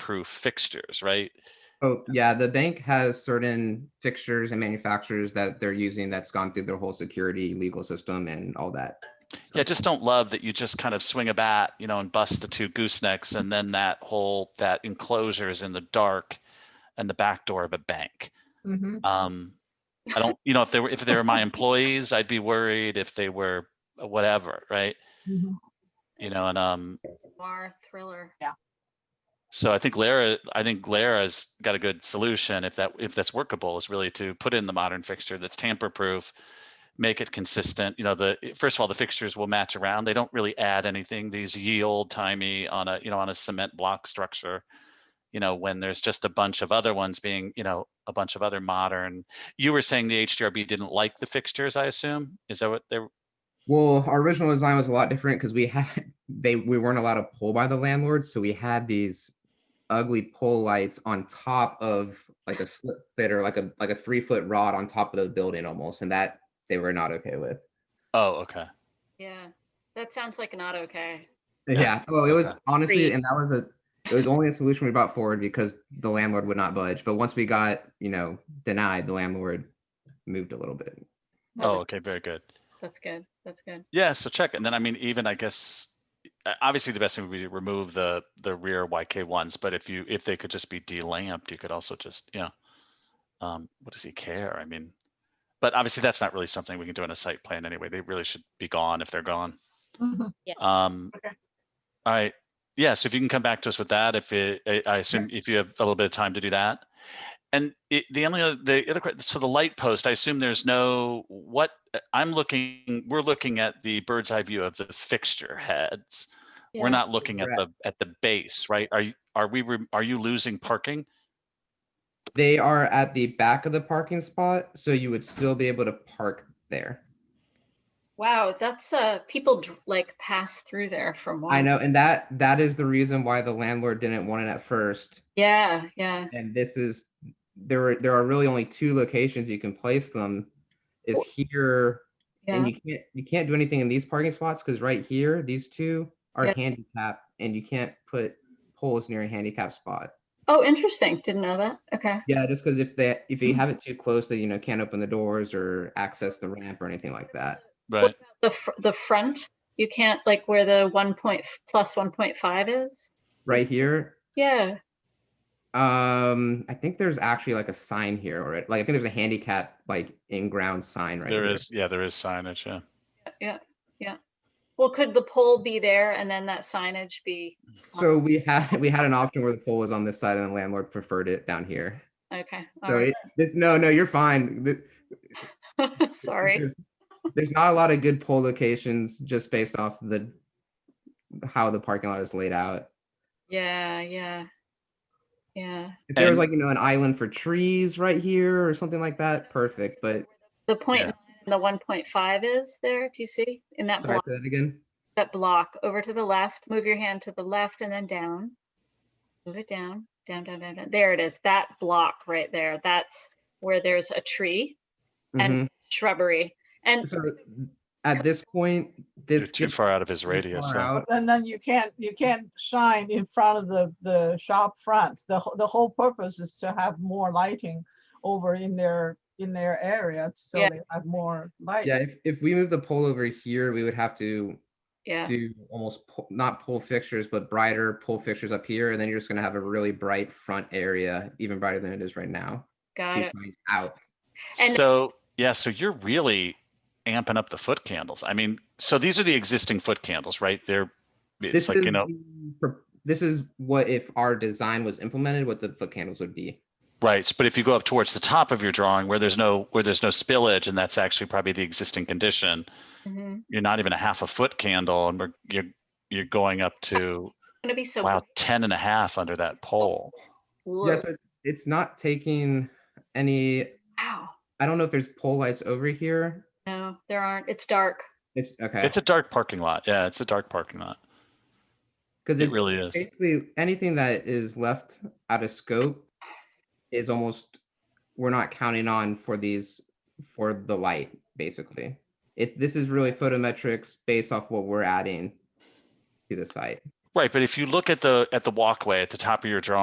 proof fixtures, right? Oh, yeah, the bank has certain fixtures and manufacturers that they're using that's gone through their whole security legal system and all that. Yeah, just don't love that you just kind of swing a bat, you know, and bust the two goosenecks and then that whole, that enclosure is in the dark and the back door of a bank. Mhm. Um, I don't, you know, if they were, if they were my employees, I'd be worried if they were whatever, right? Mhm. You know, and, um, Noir thriller. So I think Lara, I think Lara's got a good solution if that if that's workable is really to put in the modern fixture that's tamper proof, make it consistent. You know, the first of all the fixtures will match around. They don't really add anything. These ye old timey on a you know on a cement block structure. You know, when there's just a bunch of other ones being you know a bunch of other modern. You were saying the HDRB didn't like the fixtures. I assume is that what they're Well, our original design was a lot different because we had, they, we weren't allowed to pull by the landlords, so we had these ugly pole lights on top of like a slip fitter, like a, like a three foot rod on top of the building almost, and that they were not okay with. oh okay. Yeah, that sounds like not okay. Yeah. Yeah, so it was Okay. honestly, Agreed. and that was a, it was only a solution we brought forward because the landlord would not budge, but once we got, you know, denied, the landlord moved a little bit. Oh Well, okay, very good. That's good. That's good. Yeah, so check, and then I mean, even I guess, uh, obviously the best thing would be to remove the the rear YK ones, but if you if they could just be delamped, you could also just you know, um, what does he care? I mean, but obviously that's not really something we can do in a site plan anyway. They really should be gone if they're gone. Mhm. Um, Okay. all right, yeah, so if you can come back to us with that, if it, I, I assume if you have a little bit of time to do that. And it, the only other, the other, que- so the light post, I assume there's no, what, I'm looking, we're looking at the bird's eye view of the fixture heads. We're Yeah. not looking at the, Correct. at the base, right? Are you, are we, re- are you losing parking? They are at the back of the parking spot, so you would still be able to park there. Wow, that's uh, people dr- like pass through there from. I one- know, and that, that is the reason why the landlord didn't want it at first, Yeah, yeah. and this is, there are, there are really only two locations you can place them. Is here Yeah. And you can't, you can't do anything in these parking spots, because right here, these two are Yeah. handicap, and you can't put poles near a handicap spot. oh, interesting. Didn't know that. Okay. Yeah, just because if they, if Mm-hmm. you have it too close, they, you know, can't open the doors or access the ramp or anything like that. Right, The fr- the front, you can't like where the one point plus one point five is. Right here, Yeah. um, I think there's actually like a sign here, or like, I think there's a handicap, like, in-ground sign right there here. is, yeah, there is signage, yeah. Well, could the pole be there and then that signage be? on- So we had, we had an option where the pole was on this side and the landlord preferred it down here. Okay. all So right. it, this- no, no, you're fine. Th- Sorry. There's- There's not a lot of good pole locations just based off the, how the parking lot is laid out. Yeah, yeah. Yeah. If there was And- like, you know, an island for trees right here or something like that, perfect, but, The point Yeah. nine and the one point five is there, do you see? In that sorry, block, say that again. that block, over to the left, move your hand to the left and then down. Move it down, down, down, down, down. There it is, that block right there. That's where there's a tree Mhm. and shrubbery. And So at this point, You're this. too gets far out of his too radius. far so- out. And then you can't, you can't shine in front of the, the shop front. The, wh- the whole purpose is to have more lighting over in their, in their area, so Yeah. they have more light. Yeah, if, if we move the pole over here, we would have to yeah, do almost, po- not pole fixtures, but brighter pole fixtures up here, and then you're just gonna have a really bright front area, even brighter than it is right now. got to it. shine Out. And- so yeah, so you're really amping up the foot candles. I mean, so these are the existing foot candles, right? They're it's This like is, you know the pro- this is what if our design was implemented, what the foot candles would be. right. But if you go up towards the top of your drawing where there's no where there's no spillage, and that's actually probably the existing condition, Mhm. you're not even a half a foot candle, and we're you're you're going up to Gonna be so. wow 10 and a half under that pole. blue. Yeah, so it's, it's not taking any, Wow. I don't know if there's pole lights over here. No, there aren't. It's dark. It's okay, It's a dark parking lot. Yeah, it's a dark parking lot. because It it's really is. basically anything that is left out of scope is almost, we're not counting on for these, for the light, basically. If this is really photometrics based off what we're adding to the site. Right. But if you look at the at the walkway at the top of your drawing.